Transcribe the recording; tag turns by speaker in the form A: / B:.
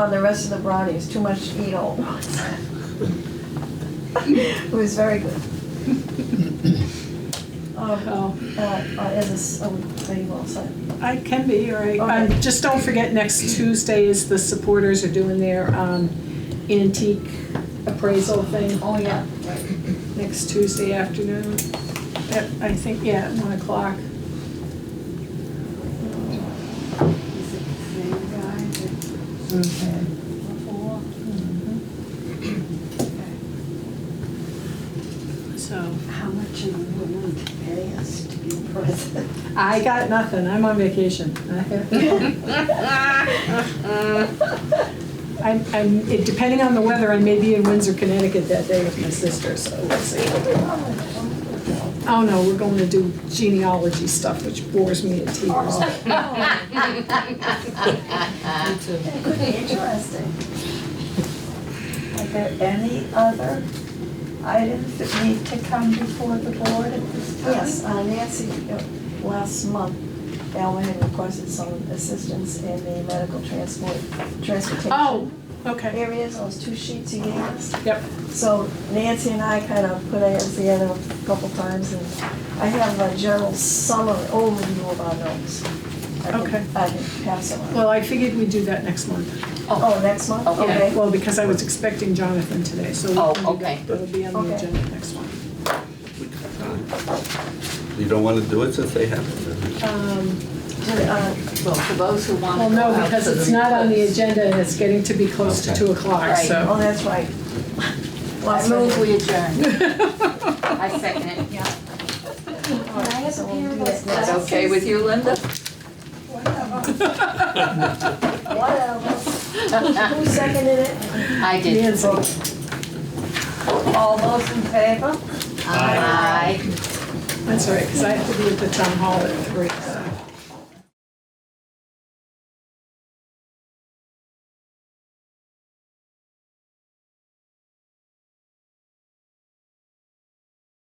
A: on the rest of the brownies, too much to eat all at once. It was very good. Um,
B: Oh,
A: uh, uh, Is this, oh, are you all set?
B: I can be, all right. Um,
A: Okay.
B: Just don't forget, next Tuesday is the supporters are doing their um, antique appraisal thing
A: Oh, yeah, right.
B: next Tuesday afternoon. At, I think, yeah, at one o'clock.
C: Is it the same guy that before?
B: So
C: How much are you willing to pay us to be present?
B: I got nothing. I'm on vacation. I'm, I'm, it- depending on the weather, I may be in Windsor, Connecticut that day with my sister, so we'll see. Oh no, we're going to do genealogy stuff, which bores me to tears.
A: It could be interesting.
D: Are there any other items that need to come before the board at this time?
A: Yes, uh, Nancy, uh, last month, Alma had requested some assistance in the medical transport, transportation.
B: Oh, okay.
A: Areas, those two sheets you gave us.
B: Yep.
A: So Nancy and I kind of put ours together a couple times, and I have a general summary overview of our notes. I can-
B: Okay.
A: I can pass them on.
B: Well, I figured we'd do that next month.
A: Oh, next month, okay.
B: Well, because I was expecting Jonathan today, so we
E: Oh,
B: can do
E: okay.
B: that. That'll be on
A: Okay.
B: the agenda next one.
F: You don't want to do it since they have it.
B: Um,
A: Uh,
E: Well, for those who want to
B: Well,
E: go
B: no,
E: out
B: because
E: to the
B: it's not on the
E: request.
B: agenda and it's getting to be close to
F: Okay.
B: two o'clock,
E: Right.
B: so.
A: Oh, that's right.
E: I
A: Last
E: move
A: minute.
E: we adjourn. I second it.
A: All right, so we'll do that
E: Is
A: next.
E: that okay with you, Linda?
A: Whatever. Who seconded it?
E: I did.
B: Nancy.
D: All those in favor?
E: Aye.
B: That's all right, because I have to be at the town hall at three, so.